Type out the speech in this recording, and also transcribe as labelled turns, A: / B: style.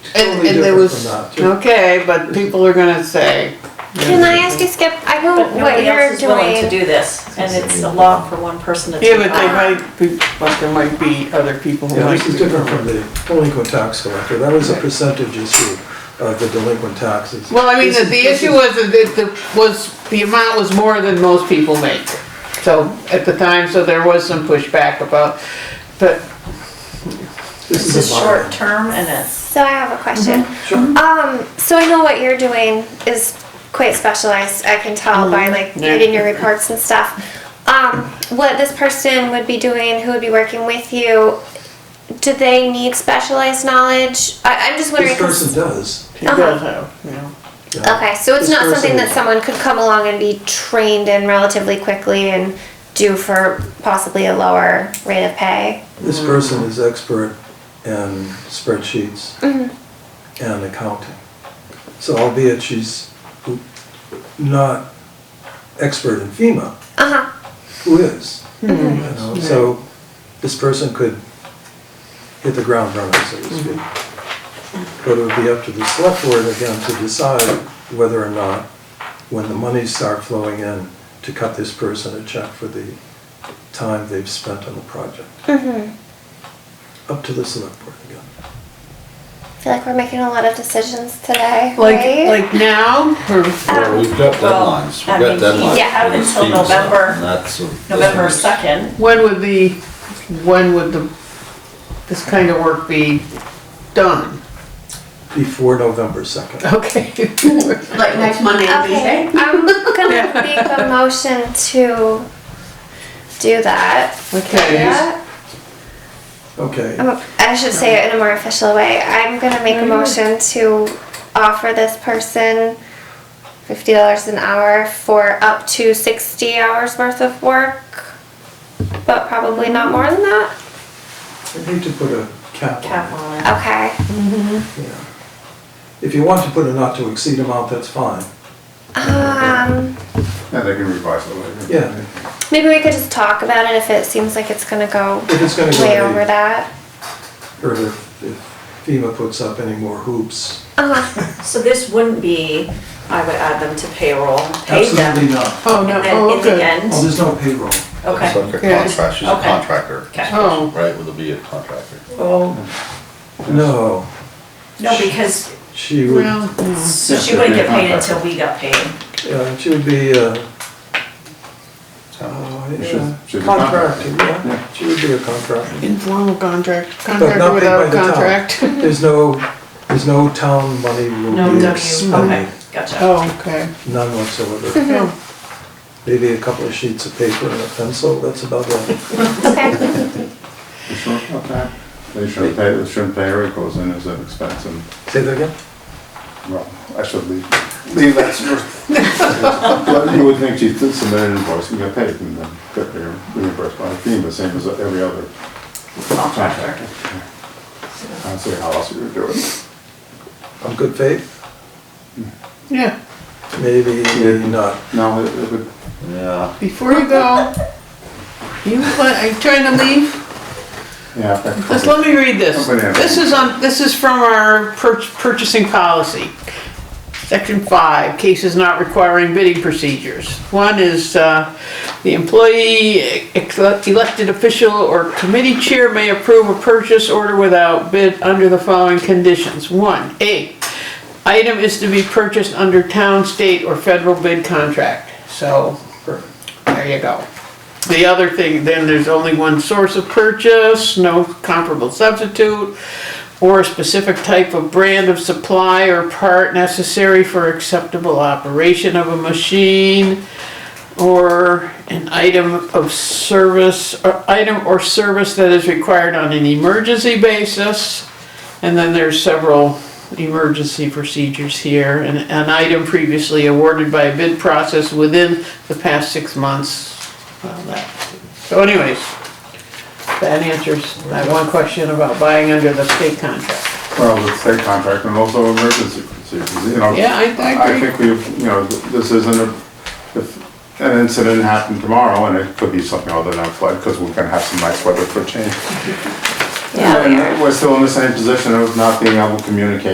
A: and, and there was, okay, but people are gonna say,
B: Can I ask you, Skip, I know
C: But
B: what
C: nobody
B: you're
C: else is willing to
B: doing.
C: do this, and it's a law for one person to do.
A: yeah, but they might, be- but there might be other people who
D: Yeah,
A: might
D: this
A: be.
D: is different from the delinquent tax collector. That was a percentage issue of the delinquent taxes.
A: Well, I mean,
D: This
A: the,
D: is-
A: the
D: this
A: issue
D: is-
A: was that it- the, was, the amount was more than most people make. So, at the time, so there was some pushback about, but
C: This is
D: a
C: short
D: bylaw.
C: term and it's,
B: So I have a question.
D: Mm-hmm. Sure.
B: Um, so I know what you're doing is quite specialized, I can tell by
D: Mm-hmm.
B: like
A: Yeah.
B: reading your reports and stuff. Um, what this person would be doing, who would be working with you, do they need specialized knowledge? I, I'm just wondering.
D: This
B: 'cause-
D: person does.
A: he
B: Uh-huh.
A: does have, you know.
D: yeah.
B: Okay, so it's
D: This
B: not something
D: person-
B: that someone could come along and be trained in relatively quickly and do for possibly a lower rate of pay?
D: This person is expert in spreadsheets
C: Mm-hmm.
D: and accounting. So albeit she's not expert in FEMA,
B: Uh-huh,
D: who is? You know, So this person could hit the ground running, so to speak. But it would be up to the select board again to decide whether or not, when the monies start flowing in, to cut this person a check for the time they've spent on the project. Up to the select board again.
B: I feel like we're making a lot of decisions today,
A: Like,
B: right?
A: like now, hmm, or,
C: Um,
E: Well, we've got deadlines,
C: I
E: we've got
C: mean,
E: deadlines.
C: yeah,
E: for these
C: until
E: fees and
C: November-
E: that's a-
C: November
E: that's a-
C: second,
A: when would the, when would the, this kind of work be done?
D: Before November 2nd.
A: Okay.
F: Like next Monday and
B: Okay,
F: Tuesday?
B: Um, I'm gonna make a motion to do that.
A: Okay.
B: Yeah?
D: Okay.
B: I'm- I should say it in a more official way. I'm gonna make a motion to offer this person fifty dollars an hour for up to sixty hours worth of work, but probably not more than that.
D: I hate to put a cap
C: cap
D: on it.
C: on it.
B: Okay.
D: yeah. If you want to put a not to exceed amount, that's fine.
B: Um,
G: Yeah, they can revise it later.
D: Yeah,
B: maybe we could just talk about it if it seems like it's gonna go
D: if it's going to go.
B: way
D: to-
B: over that.
D: or if if FEMA puts up any more hoops.
B: Uh-huh.
C: So this wouldn't be, I would add them to payroll, pay them,
D: Absolutely not.
A: Oh, no,
C: and then
A: oh,
C: in the
A: okay.
D: Oh,
C: end,
D: there's no payroll.
E: It's
C: okay,
E: like a
A: Yeah.
E: contract, she's a
C: Okay.
E: contractor,
C: okay.
A: Oh,
E: right, with a be a contractor.
D: Oh. No,
C: No, because,
D: she would,
A: well, mm,
C: so she
G: Yeah,
C: wouldn't
G: they're
C: get paid
G: contractor.
C: until we got paid.
D: uh, she would be, uh,
E: So,
D: oh,
G: She's-
D: yeah,
G: she's a
D: contractor, yeah,
G: Yeah.
D: she would be a contractor.
A: informal contract,
D: But
A: contract
D: not paid by
A: without
D: the town.
A: contract.
D: The's no, there's no town money
C: No
D: will be
C: W,
D: expended,
C: okay, gotcha.
A: Oh, okay.
D: none whatsoever.
A: Oh.
D: Maybe a couple of sheets of paper and a pencil, that's about all.
B: Okay.
G: They shouldn't- okay. They shouldn't pay, they shouldn't pay her, it goes in as an expense and,
D: Say that again?
G: well, I should leave, leave that first. But you would think she did submit an invoice and get paid and then get re- reimbursed by FEMA, same as every other contractor. I don't see how else you would do it.
D: On good faith?
A: Yeah,
D: Maybe, maybe not.
G: No, it it would,
E: Yeah,
A: before you go, you, what, are you trying to leave?
G: yeah. that
A: Just
G: could
A: let me read this.
G: Somebody has-
A: This is on, this is from our pur- purchasing policy. Section five, cases not requiring bidding procedures. One is, uh, the employee, ex- elected official or committee chair may approve a purchase order without bid under the following conditions. One, A, item is to be purchased under town, state, or federal bid contract. So, there you go. The other thing, then there's only one source of purchase, no comparable substitute, or a specific type of brand of supply or part necessary for acceptable operation of a machine, or an item of service, or item or service that is required on an emergency basis. And then there's several emergency procedures here, and an item previously awarded by a bid process within the past six months. Well, that- So anyways, that answers that one question about buying under the state contract.
G: Well, the state contract and also emergency procedures, you know.
A: Yeah, I- I agree.
G: think we've, you know, th- this isn't a, if an incident happened tomorrow and it could be something other than a flood, because we're gonna have some nice weather for change.
B: Yeah, we are.
G: And we're still in the same position of not being able to communicate